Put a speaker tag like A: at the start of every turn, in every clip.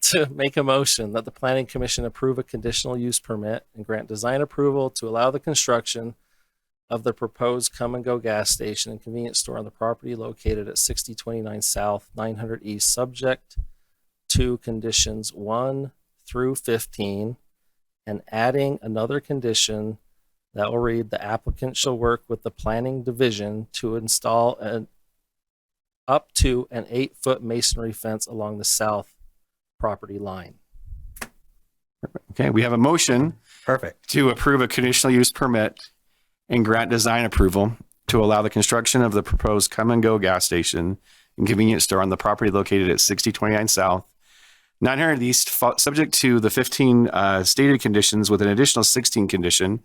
A: to make a motion that the planning commission approve a conditional use permit and grant design approval to allow the construction of the proposed come and go gas station and convenience store on the property located at sixty twenty-nine south, nine hundred east, subject to conditions one through fifteen, and adding another condition that will read, the applicant shall work with the planning division to install an up to an eight-foot masonry fence along the south property line.
B: Okay, we have a motion
C: Perfect.
B: to approve a conditional use permit and grant design approval to allow the construction of the proposed come and go gas station and convenience store on the property located at sixty twenty-nine south, nine hundred east, fo- subject to the fifteen, uh, stated conditions with an additional sixteen condition,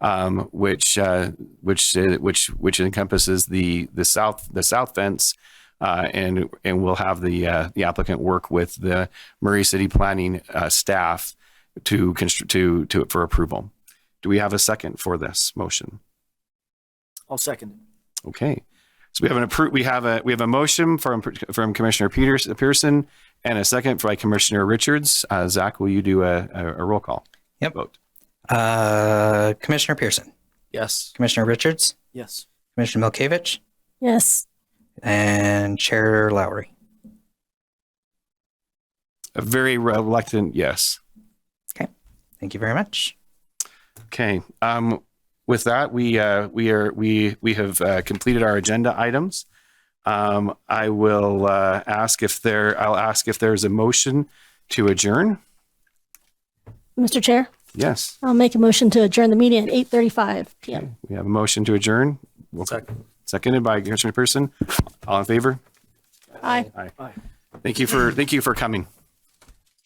B: um, which, uh, which, uh, which, which encompasses the, the south, the south fence. Uh, and, and we'll have the, uh, the applicant work with the Murray City Planning, uh, staff to constr- to to for approval. Do we have a second for this motion?
C: I'll second.
B: Okay. So we have an appro- we have a we have a motion from from Commissioner Peters Pearson and a second by Commissioner Richards. Uh, Zach, will you do a, a, a roll call?
C: Yep.
B: Vote.
C: Uh, Commissioner Pearson,
A: Yes.
C: Commissioner Richards,
A: Yes.
C: Commissioner Milkovich,
D: Yes.
C: and Chair Lowry.
B: A very reluctant yes.
C: Thank you very much.
B: Okay. Um, with that, we uh, we are we we have uh, completed our agenda items. Um, I will uh, ask if there. I'll ask if there is a motion to adjourn.
D: Mr. Chair,
B: Yes.
D: I'll make a motion to adjourn the meeting at 8:35 PM.
B: We have a motion to adjourn. We'll-
A: Second.
B: Seconded by Commissioner Pearson. All in favor?
D: Aye.
B: Thank you for, thank you for coming.